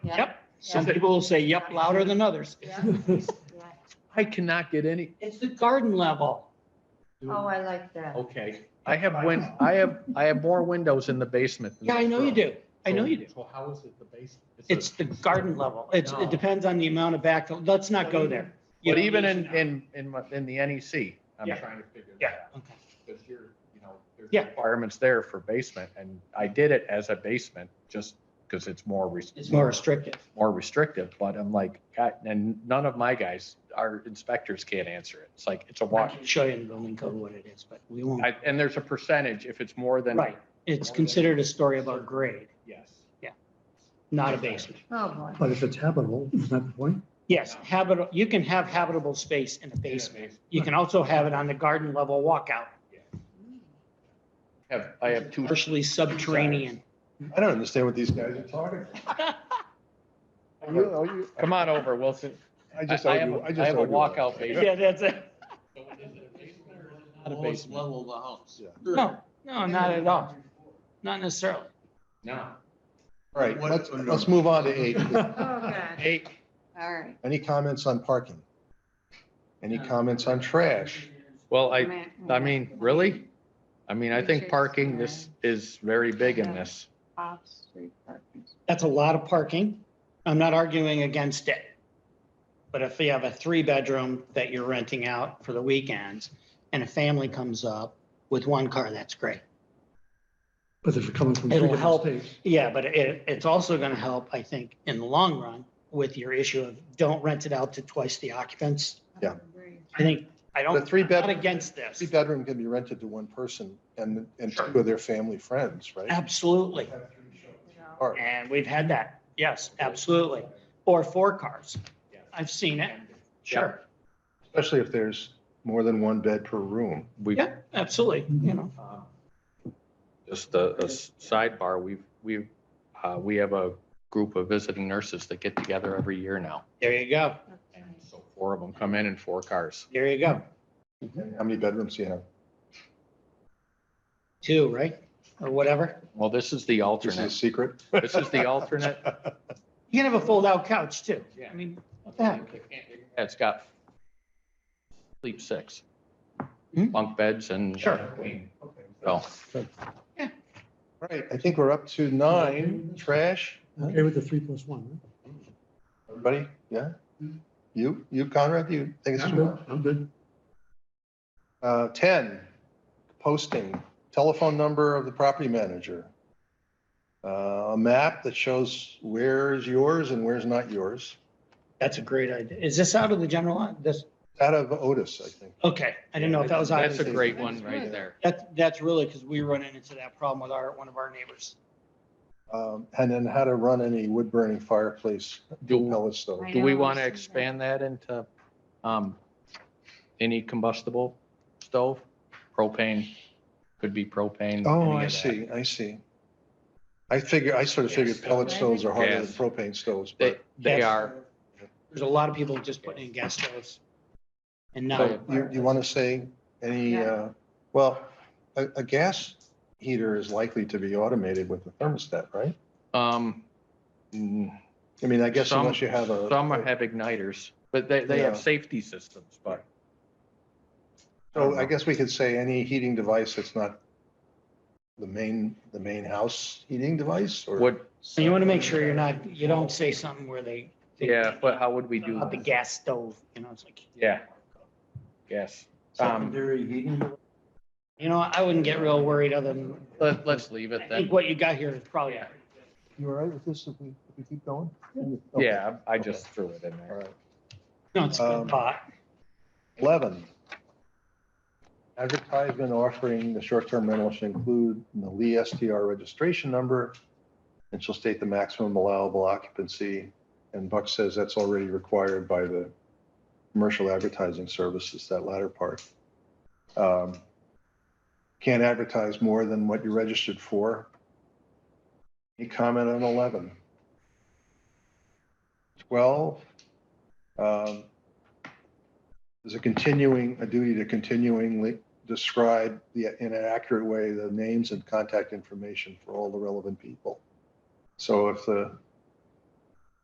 Yep. Some Yeah. people will say yep louder than others. Yeah. Yeah. I cannot get any, It's the garden level. Oh, I like that. Okay. I have win, I have, I have more windows in the basement. than Yeah, I this know you room. do. I know you do. So how is it the base? a- It's the garden level. It's, No. it depends on the amount of back, let's not go there. But even in, in, in, my- in the E NEC, I'm I'm trying trying to figure that Yeah, out. okay. Because you're, you know. there's Yeah. requirements there for basement, and I did it as a basement, just because it's more, res- It's more restrictive. more restrictive, but I'm like, God, and none of my guys, our inspectors can't answer it. It's like, it's a I wash. can show you in the building code what it is, but we won't. I- And there's a percentage, if it's more than, Right. It's considered a story above grade, Yes. not a basement. Oh, boy. But if it's habitable, isn't that the point? Yes, habitable, you can have habitable space in a basement. Basement. You can also have it on the garden level walkout, I have, I have two, partially subterranean. I don't understand what these guys are talking about. I really- I really- come on over, Wilson. I I just I have, argue. a- I just have a argue all the walkout time. basement. Yeah, that's it. So is it a basement or is it Not a lowest basement. level of the house. Yeah. No, no, not at all. Not necessarily. No. All right, What- let's, let's move on to eight. Oh, God. Eight, All right. Any comments on parking? Any comments on trash? well, I, Man, I mean, really? I mean, I think Features, parking this is very big in this. Off-street parking. That's a lot of parking. I'm not arguing against it. But if you have a three-bedroom that you're renting out for the weekends and a family comes up with one car, that's great. But if it's coming from. three It'll different help. states, Yeah, but it, it's also going to help, I think, in the long run with your issue of don't rent it out to twice the occupants. Yeah. I think, I don't, The three I'm not bed- against this. Three bedroom can be rented to one person and, and Sure. two of their family friends, right? Absolutely. All right. And we've had that. Yes, absolutely. Or four cars. I've seen it. Sure. Especially if there's more than one bed per room. We, Yeah, absolutely. You know, Um, just uh, a, a s- sidebar, we've, we've, uh, we have a group of visiting nurses that get together every year now. there you go. And so four of them come in in four cars. There you go. Mm-hmm. How many bedrooms do you have? Two, right? Or whatever. Well, this is the This is a alternate. secret. This is the alternate. You can have a fold-out couch too. Yeah. I mean, what the heck? It's got sleep six, Hmm? bunk beds and. Sure. So, All Right, I think we're up to Mm-hmm. nine, trash. Okay with the three plus one, Everybody, yeah? You, you Conrad, you think right? it's Mm-hmm. I'm too much? good, I'm good. Uh, ten, posting, telephone number of the property manager. Uh, a map that shows where is yours and where's not yours, That's a great idea. Is this out of the general, line? this, out of Otis, I think. okay, I didn't know if that was out. of that's a the- great one right there. That, that's really because we run into that problem with our, one of our neighbors. Um, and then how to run any wood burning fireplace, dual Do, pellet stove. I do we know, I want to see that. expand that into, um, any combustible stove? Propane, could be propane. Oh, any I of that. see, I see. I figure, I sort of figured pellet stoves are harder than Yes. propane stoves, They, but they That's- are, There's a lot of people just putting in gas stoves. And now, So- you, you want to say any, Yeah. uh, well, a, a gas heater is likely to be automated with a thermostat, right? um. mm, I mean, I guess some- unless you have a. Some have igniters, but they, they have Yeah. safety systems, but. So oh, I guess we could say any heating device that's not the main, the main house heating device or? Would, so you want to make sure you're not, you don't say something where they. they- yeah, but how would we do? About the that? gas stove, you know, it's like, Yeah. Yes. Um, Secondary heating. you know, I wouldn't get real worried other than, let, let's leave I it then. think what you got here is probably. You all right with this if we, if we keep going? Okay. Yeah, I I just threw it in All there. right. No, it's a Um, good thought. Eleven. Advertisement offering the short-term rental should include the Lee STR registration number. And shall state the maximum allowable occupancy. And Buck says that's already required by the commercial advertising services, that latter part. Um, Can't advertise more than what you registered for. Any comment on eleven? Twelve. um, there's a continuing, a duty to continuingly describe the, in an accurate way, the names and contact information for all the relevant people. So if the